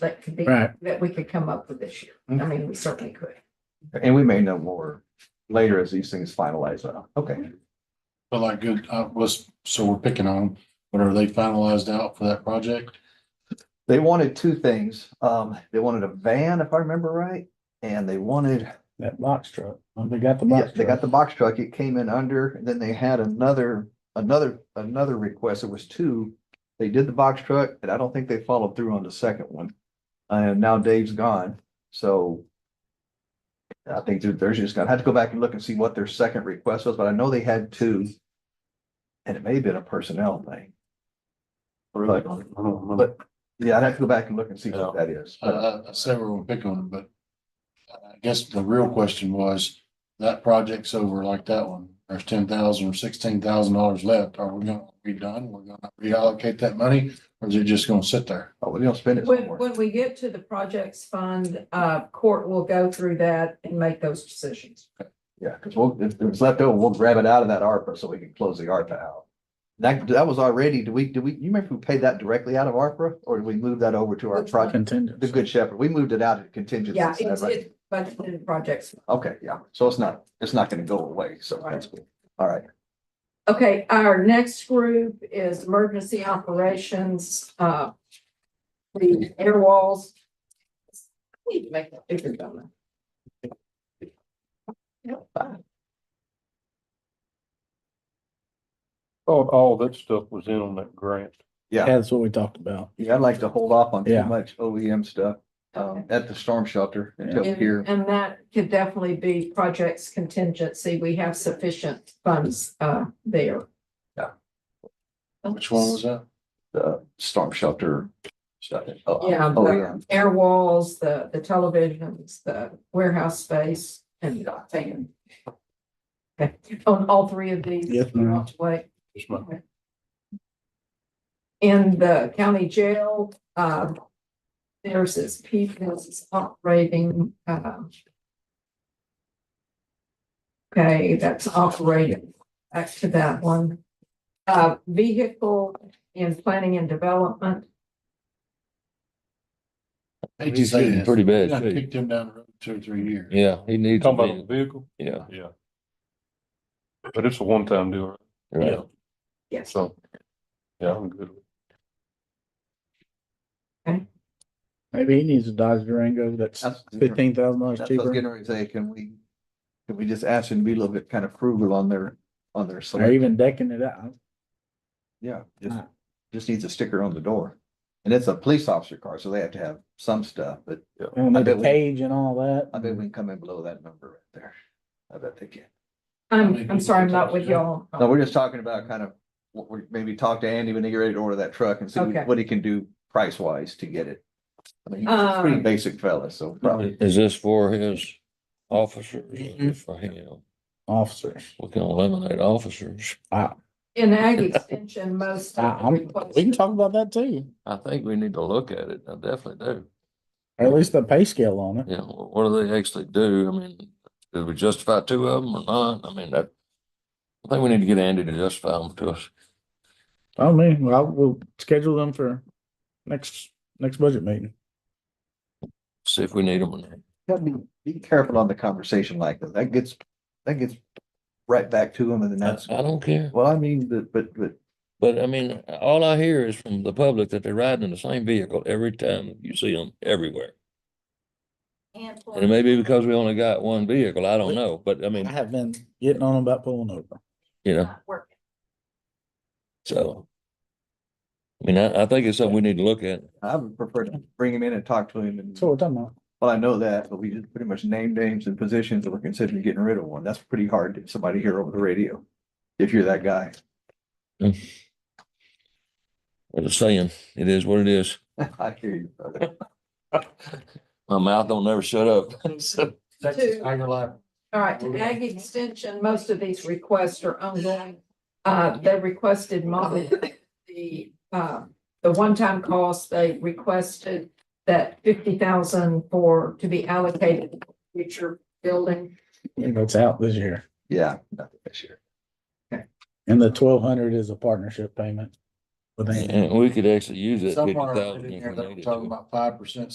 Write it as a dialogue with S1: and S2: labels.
S1: that could be,
S2: Right.
S1: that we could come up with this year. I mean, we certainly could.
S3: And we may know more later as these things finalize. Uh, Okay,
S4: But like good, uh, was, so we're picking on whatever they finalized out for that project.
S3: they wanted two things. Um, they wanted a van, if I remember right, and they wanted,
S2: That box truck, Oh, they got the
S3: yeah,
S2: box
S3: they got
S2: truck.
S3: the box truck. It came in under, and then they had another, another, another request. It was two. They did the box truck, and I don't think they followed through on the second one. And now Dave's gone, so I think there- there's just gonna have to go back and look and see what their second request was, but I know they had two. And it may have been a personnel thing.
S4: Really? I don't remember.
S3: But- Yeah, I'd have to go back and look and see what that is.
S4: I, Uh, I, I say we're gonna pick on them, but I guess the real question was, that project's over like that one. There's ten thousand or sixteen thousand dollars left. Are we gonna be done? We're gonna reallocate that money? Or is it just gonna sit there?
S3: Oh, we don't spend it
S1: When,
S3: somewhere.
S1: when we get to the projects fund, uh, court will go through that and make those decisions.
S3: Yeah, because we'll, if if it's left over, we'll grab it out of that ARPA so we can close the ARPA out. That, that was already, do we, do we, you remember if we paid that directly out of ARPA or did we move that over to our
S1: Which one?
S3: project? The
S2: Contingent.
S3: Good Shepherd, we moved it out of contingency.
S1: Yeah,
S3: is that
S1: it's,
S3: right?
S1: it's budgeted in projects.
S3: Okay, yeah, so it's not, it's not gonna go away, so that's good. All right,
S1: Okay, our next group is emergency operations, uh, the air walls. Need to make that bigger, don't I?
S5: All, all that stuff was in on that grant.
S3: yeah.
S2: That's what we talked about.
S3: Yeah, I'd like to hold off on too
S2: Yeah.
S3: much OEM stuff, um, at the storm shelter until
S1: And-
S3: here.
S1: And that could definitely be projects contingency. We have sufficient funds, uh, there. Oh,
S4: Which one was that?
S3: the storm shelter stuff.
S1: Yeah,
S3: Oh,
S1: but-
S3: yeah.
S1: Air walls, the, the televisions, the warehouse space and the fan. Okay, on all three of these.
S2: Yes,
S1: you
S2: ma'am.
S1: want to wait?
S5: Yes, ma'am.
S1: Okay. In the county jail, um, there's this P, there's this operating, um. Okay, that's operating, back to that one. Uh, vehicle in planning and development,
S4: Hate to
S6: He's
S4: say
S6: getting
S4: this.
S6: pretty
S4: We
S6: bad
S4: done
S6: too.
S4: kicked him down the road two or three years.
S6: Yeah, he needs.
S5: Talking
S6: a
S5: about the
S6: bid.
S5: vehicle,
S6: Yeah.
S5: but it's a one-time deal,
S6: right.
S1: yes.
S5: so, yeah, I'm good.
S2: Maybe he needs a Dodge Durango that's
S3: That's-
S2: fifteen thousand dollars
S3: That's what I was
S2: cheaper,
S3: getting ready to say, can we, can we just ask them to be a little bit kind of frugal on their, on their
S2: or
S3: select?
S2: even decking it out.
S3: Yeah, just,
S2: Ah.
S3: just needs a sticker on the door. And it's a police officer car, so they have to have some stuff, but
S2: And
S3: I bet
S2: with the
S3: we-
S2: cage and all that.
S3: I bet we can come in below that number right there. I bet they can.
S1: I'm, I'm sorry, I'm not with y'all.
S3: No, we're just talking about kind of, what we, maybe talk to Andy when they get ready to order that truck and see
S1: Okay.
S3: what he can do price wise to get it. I mean, he's a pretty
S1: Um,
S3: basic fella, so probably,
S6: Is this for his officers? or For him,
S2: Officers.
S6: we can eliminate officers.
S1: In ag extension, most.
S2: I,
S1: of the
S2: I'm,
S1: requests-
S2: we can talk about that too,
S6: I think we need to look at it. I definitely do.
S2: or at least the pay scale on it.
S6: Yeah, wh- what do they actually do? I mean, do we justify two of them or not? I mean, that. I think we need to get Andy to justify them to us.
S2: I mean, well, we'll schedule them for next, next budget meeting.
S6: See if we need them or not.
S3: gotta be, be careful on the conversation like that. That gets, that gets right back to him and then that's.
S6: I don't care.
S3: Well, I mean, but, but, but
S6: But I mean, all I hear is from the public that they're riding in the same vehicle every time you see them everywhere. And it may be because we only got one vehicle. I don't know, but I
S2: I
S6: mean,
S2: have been getting on about pulling over.
S6: you know. So. I mean, I, I think it's something we need to look at.
S3: I would prefer to bring him in and talk to him and,
S2: That's what we're talking about.
S3: well, I know that, but we just pretty much named names and positions that we're considering getting rid of one. That's pretty hard to somebody hear over the radio. If you're that guy.
S6: There's a saying, it is what it is.
S3: I hear you, brother.
S6: My mouth don't never shut up. So,
S4: Texas Tiger Life.
S1: All right, to ag extension, most of these requests are ongoing. Uh, they requested model, the, uh, the one-time cost, they requested that fifty thousand for, to be allocated to future building.
S2: You know, it's out this year.
S3: Yeah, nothing this year.
S2: And the twelve hundred is a partnership payment. with Andy.
S6: And we could actually use that fifty
S4: Somewhere in here, they were talking
S6: thousand.
S4: about five percent